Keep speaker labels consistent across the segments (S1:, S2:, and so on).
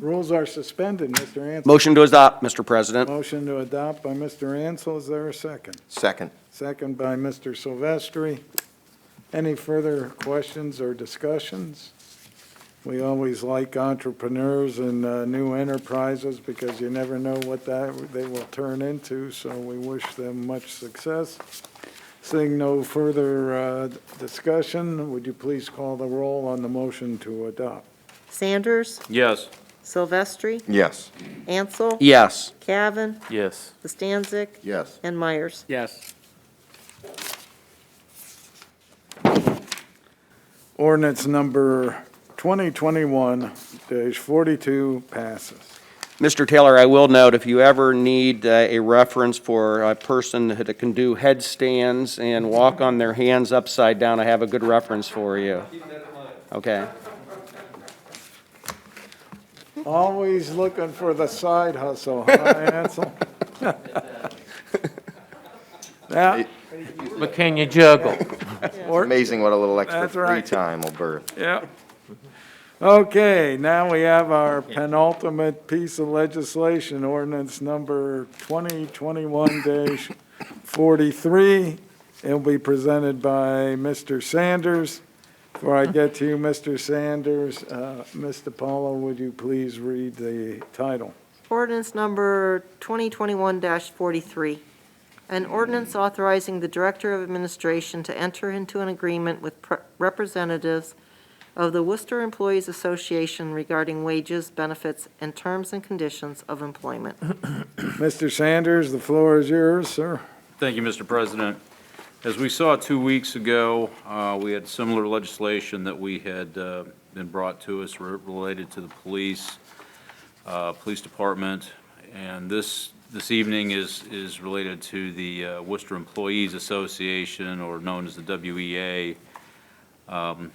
S1: Rules are suspended, Mr. Ansel.
S2: Motion to adopt, Mr. President.
S1: Motion to adopt by Mr. Ansel, is there a second?
S3: Second.
S1: Second by Mr. Silvestri. Any further questions or discussions? We always like entrepreneurs and uh, new enterprises because you never know what that, they will turn into, so we wish them much success. Seeing no further uh, discussion, would you please call the roll on the motion to adopt?
S4: Sanders,
S5: Yes.
S4: Silvestri,
S3: Yes.
S4: Ansel,
S2: Yes.
S4: Cavan,
S5: Yes.
S4: Bastancik,
S3: Yes.
S4: and Myers.
S5: Yes.
S1: Ordinance number 2021-42 passes.
S2: Mr. Taylor, I will note, if you ever need uh, a reference for a person that can do headstands and walk on their hands upside down, I have a good reference for you. Okay.
S1: Always looking for the side hustle, huh, Ansel? Yeah,
S5: But can you juggle?
S3: Amazing what a little extra
S1: That's
S3: free
S1: right.
S3: time will birth.
S1: yeah. Okay, now we have our penultimate piece of legislation, ordinance number 2021-43. It'll be presented by Mr. Sanders. Before I get to you, Mr. Sanders, uh, Ms. DiPaolo, would you please read the title?
S4: Ordinance number 2021-43, an ordinance authorizing the Director of Administration to enter into an agreement with pre- representatives of the Worcester Employees Association regarding wages, benefits, and terms and conditions of employment.
S1: Mr. Sanders, the floor is yours, sir.
S5: Thank you, Mr. President. As we saw two weeks ago, uh, we had similar legislation that we had uh, been brought to us re- related to the police, uh, police department, and this, this evening is, is related to the uh, Worcester Employees Association, or known as the WEA. Um,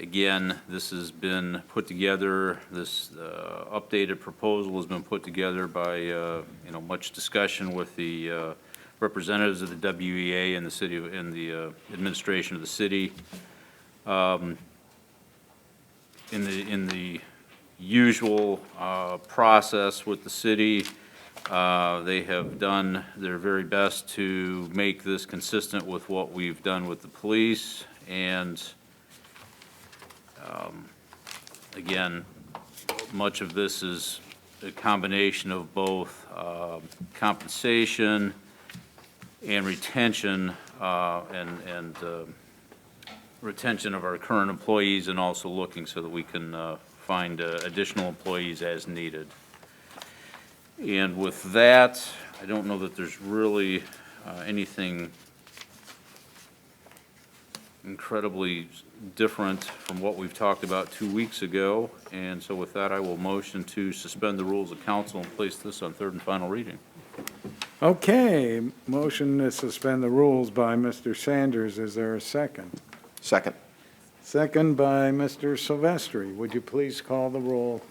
S5: Again, this has been put together, this uh, updated proposal has been put together by, uh, you know, much discussion with the uh, representatives of the WEA and the city, and the uh, administration of the city. Um, In the, in the usual uh, process with the city, uh, they have done their very best to make this consistent with what we've done with the police. And um, again, much of this is a combination of both um, compensation, and retention, uh, and, and uh, retention of our current employees, and also looking so that we can uh, find uh, additional employees as needed. And with that, I don't know that there's really uh, anything incredibly different from what we've talked about two weeks ago, and so with that, I will motion to suspend the rules of council and place this on third and final reading.
S1: Okay, motion to suspend the rules by Mr. Sanders. Is there a second?
S3: Second.
S1: Second by Mr. Silvestri. Would you please call the roll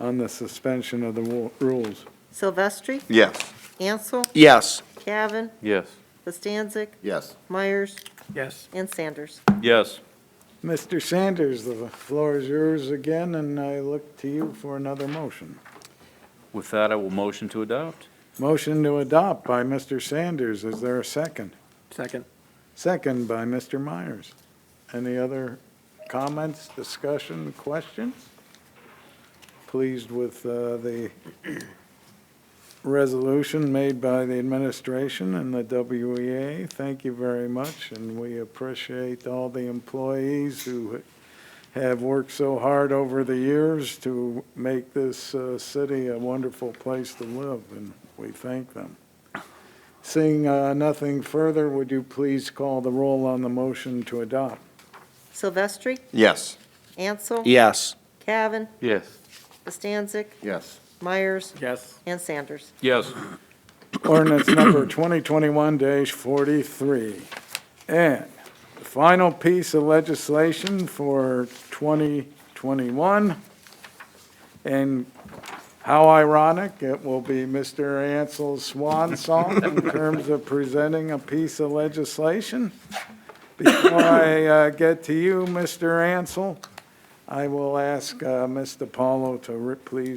S1: on the suspension of the wo- rules?
S4: Silvestri,
S3: Yes.
S4: Ansel,
S2: Yes.
S4: Cavan,
S5: Yes.
S4: Bastancik,
S3: Yes.
S4: Myers,
S1: Yes.
S4: and Sanders.
S5: Yes.
S1: Mr. Sanders, the floor is yours again, and I look to you for another motion.
S5: With that, I will motion to adopt.
S1: Motion to adopt by Mr. Sanders. Is there a second?
S6: Second.
S1: Second by Mr. Myers. Any other comments, discussion, questions? Pleased with uh, the resolution made by the administration and the WEA. Thank you very much, and we appreciate all the employees who have worked so hard over the years to make this uh, city a wonderful place to live, and we thank them. Seeing uh, nothing further, would you please call the roll on the motion to adopt?
S4: Silvestri,
S3: Yes.
S4: Ansel,
S2: Yes.
S4: Cavan,
S5: Yes.
S4: Bastancik,
S3: Yes.
S4: Myers,
S6: Yes.
S4: and Sanders.
S5: Yes.
S1: Ordinance number 2021-43. And the final piece of legislation for 2021, and how ironic, it will be Mr. Ansel's swan song in terms of presenting a piece of legislation. Before I uh, get to you, Mr. Ansel, I will ask uh, Ms. DiPaolo to re- please